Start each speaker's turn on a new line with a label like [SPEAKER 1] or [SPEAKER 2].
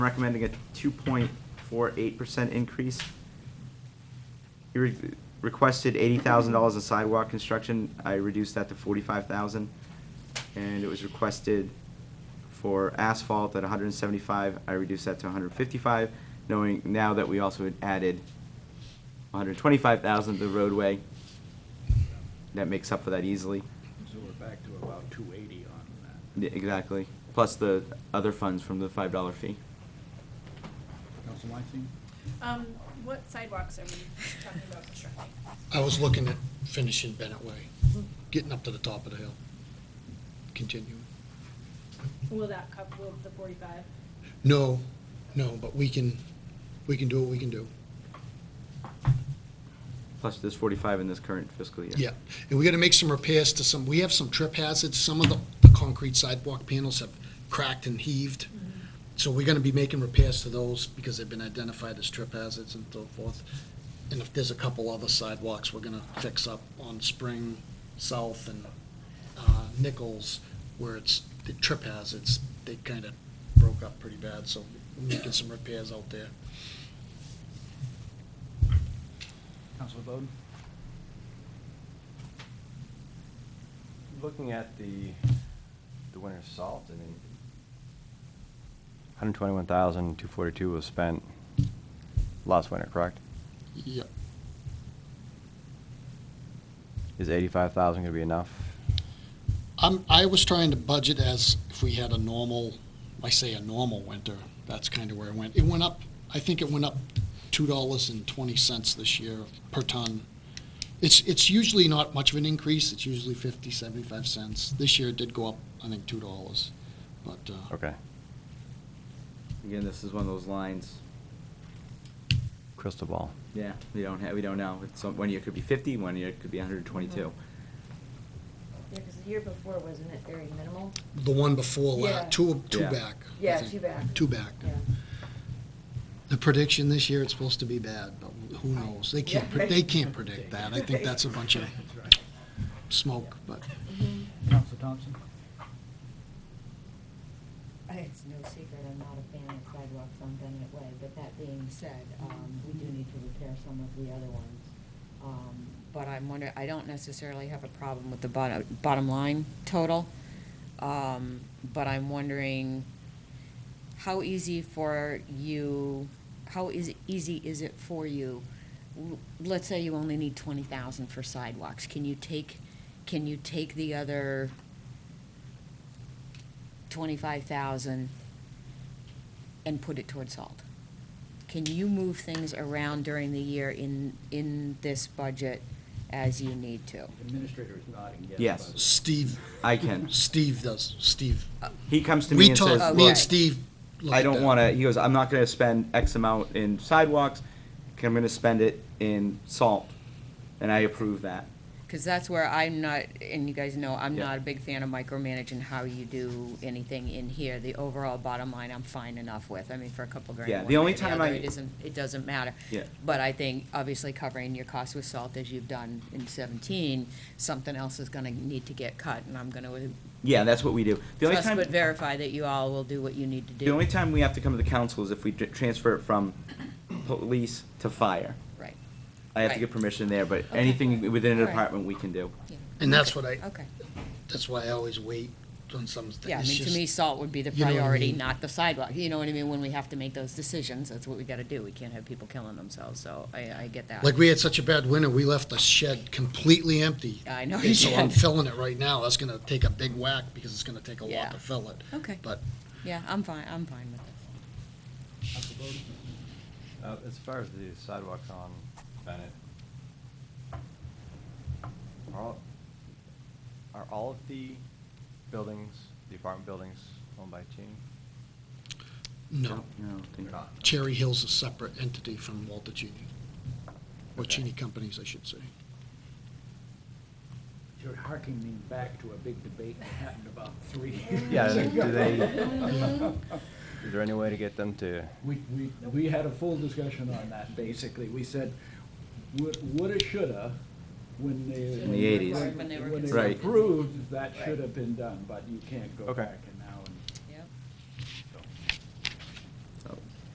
[SPEAKER 1] recommending a 2.48% increase. He re- requested $80,000 in sidewalk construction. I reduced that to 45,000. And it was requested for asphalt at 175. I reduced that to 155, knowing now that we also had added 125,000 to the roadway. That makes up for that easily.
[SPEAKER 2] So we're back to about two eighty on that.
[SPEAKER 1] Yeah, Exactly. Plus the other funds from the $5 fee.
[SPEAKER 2] Council Weinstein?
[SPEAKER 3] Um, what sidewalks are we talking about constructing?
[SPEAKER 4] I was looking at finishing Bennett Way, getting up to the top of the hill, continuing.
[SPEAKER 3] Will that cover, will the forty-five?
[SPEAKER 4] No, no, but we can, we can do what we can do.
[SPEAKER 1] Plus this 45 in this current fiscal year.
[SPEAKER 4] Yeah, and we gotta make some repairs to some, we have some trip hazards, some of the, the concrete sidewalk panels have cracked and heaved. So we're gonna be making repairs to those because they've been identified as trip hazards and so forth. And if there's a couple other sidewalks, we're gonna fix up on Spring, South and, uh, Nichols, where it's, the trip hazards, they kinda broke up pretty bad, so we're making some repairs out there.
[SPEAKER 2] Council Bowden?
[SPEAKER 5] Looking at the, the winter salt, I mean, 121,242 was spent last winter, correct?
[SPEAKER 4] Yep.
[SPEAKER 5] Is 85,000 going to be enough?
[SPEAKER 4] I'm, I was trying to budget as if we had a normal, I say a normal winter, that's kind of where it went. It went up, I think it went up two dollars and twenty cents this year per ton. It's, it's usually not much of an increase, it's usually fifty, seventy-five cents. This year it did go up, I think, two dollars, but, uh,
[SPEAKER 5] Okay.
[SPEAKER 1] Again, this is one of those lines,
[SPEAKER 5] Crystal ball.
[SPEAKER 1] yeah, we don't have, we don't know. It's, one year it could be 50, one year it could be 122.
[SPEAKER 6] Yeah, because the year before, wasn't it very minimal?
[SPEAKER 4] the one before, la-
[SPEAKER 6] Yeah.
[SPEAKER 4] two, two
[SPEAKER 1] Yeah.
[SPEAKER 4] back. I
[SPEAKER 6] Yeah,
[SPEAKER 4] think.
[SPEAKER 6] two back.
[SPEAKER 4] Two back.
[SPEAKER 6] Yeah.
[SPEAKER 4] The prediction this year, it's supposed to be bad, but who knows? They can't, pre- they can't predict that. I think that's a bunch of
[SPEAKER 2] That's right.
[SPEAKER 4] smoke, but.
[SPEAKER 2] Council Thompson?
[SPEAKER 6] Uh, It's no secret, I'm not a fan of sidewalks on Bennett Way, but that being said, um, we do need to repair some of the other ones. Um, But I'm wondering, I don't necessarily have a problem with the bottom, bottom line total. Um, But I'm wondering how easy for you, how is, easy is it for you? l- Let's say you only need twenty thousand for sidewalks. Can you take, can you take the other twenty-five thousand and put it towards salt? Can you move things around during the year in, in this budget as you need to?
[SPEAKER 2] Administrator is nodding yes.
[SPEAKER 1] Yes.
[SPEAKER 2] by the way.
[SPEAKER 4] Steve.
[SPEAKER 1] I can.
[SPEAKER 4] Steve does. Steve.
[SPEAKER 1] He comes to me
[SPEAKER 4] We
[SPEAKER 1] and
[SPEAKER 4] talk.
[SPEAKER 1] says,
[SPEAKER 4] me
[SPEAKER 1] look,
[SPEAKER 4] and Steve. look
[SPEAKER 1] I
[SPEAKER 4] at
[SPEAKER 1] don't
[SPEAKER 4] that.
[SPEAKER 1] want to, he goes, I'm not going to spend X amount in sidewalks, I'm going to spend it in salt. And I approve that.
[SPEAKER 6] Because that's where I'm not, and you guys know, I'm
[SPEAKER 1] Yeah.
[SPEAKER 6] not a big fan of micromanaging how you do anything in here. The overall bottom line, I'm fine enough with. I mean, for a couple grand.
[SPEAKER 1] Yeah, the
[SPEAKER 6] one way
[SPEAKER 1] only
[SPEAKER 6] or
[SPEAKER 1] time
[SPEAKER 6] other,
[SPEAKER 1] I-
[SPEAKER 6] It isn't, it doesn't matter.
[SPEAKER 1] Yeah.
[SPEAKER 6] But I think, obviously, covering your costs with salt as you've done in seventeen, something else is gonna need to get cut, and I'm gonna
[SPEAKER 1] Yeah, that's what we do. The only
[SPEAKER 6] trust
[SPEAKER 1] time,
[SPEAKER 6] but verify that you all will do what you need to do.
[SPEAKER 1] the only time we have to come to the council is if we d- transfer it from police to fire.
[SPEAKER 6] Right.
[SPEAKER 1] I have to
[SPEAKER 6] Right.
[SPEAKER 1] get permission there, but
[SPEAKER 6] Okay.
[SPEAKER 1] anything within a
[SPEAKER 6] All right.
[SPEAKER 1] department, we can do.
[SPEAKER 6] Yeah.
[SPEAKER 4] And that's what I.
[SPEAKER 6] Okay.
[SPEAKER 4] That's why I always wait on some things.
[SPEAKER 6] Yeah, I mean,
[SPEAKER 4] It's
[SPEAKER 6] to
[SPEAKER 4] just-
[SPEAKER 6] me, salt would be the
[SPEAKER 4] you know what I
[SPEAKER 6] priority,
[SPEAKER 4] mean.
[SPEAKER 6] not the sidewalk. You know what I mean? When we have to make those decisions, that's what we gotta do. We can't have people killing themselves, so I, I get that.
[SPEAKER 4] Like we had such a bad winter, we left the shed completely empty.
[SPEAKER 6] I know
[SPEAKER 4] And
[SPEAKER 6] you
[SPEAKER 4] So I'm
[SPEAKER 6] did.
[SPEAKER 4] filling it right now. That's gonna take a big whack because it's gonna take a
[SPEAKER 6] Yeah.
[SPEAKER 4] lot to fill it.
[SPEAKER 6] Okay.
[SPEAKER 4] But
[SPEAKER 6] Yeah, I'm fine, I'm fine with it.
[SPEAKER 2] Council Bowden?
[SPEAKER 5] Uh, As far as the sidewalks on Bennett, are all, are all of the buildings, the apartment buildings owned by E? Cheney?
[SPEAKER 4] no,
[SPEAKER 1] No, I don't think-
[SPEAKER 5] They're not.
[SPEAKER 4] Cherry Hill's a separate entity from Walter Cheney. Or
[SPEAKER 5] Okay.
[SPEAKER 4] Cheney Companies, I should say.
[SPEAKER 2] You're harking me back to a big debate that happened about three
[SPEAKER 5] Yeah,
[SPEAKER 2] years ago.
[SPEAKER 5] do they, is there any way to get them to?
[SPEAKER 2] We, we, we had a full discussion on that, basically. We said, would- woulda, shoulda, when they.
[SPEAKER 1] In the 80s.
[SPEAKER 6] When they were
[SPEAKER 2] When they
[SPEAKER 1] Right.
[SPEAKER 2] approved, that
[SPEAKER 6] Right.
[SPEAKER 2] should have been done, but you can't go
[SPEAKER 5] Okay.
[SPEAKER 2] back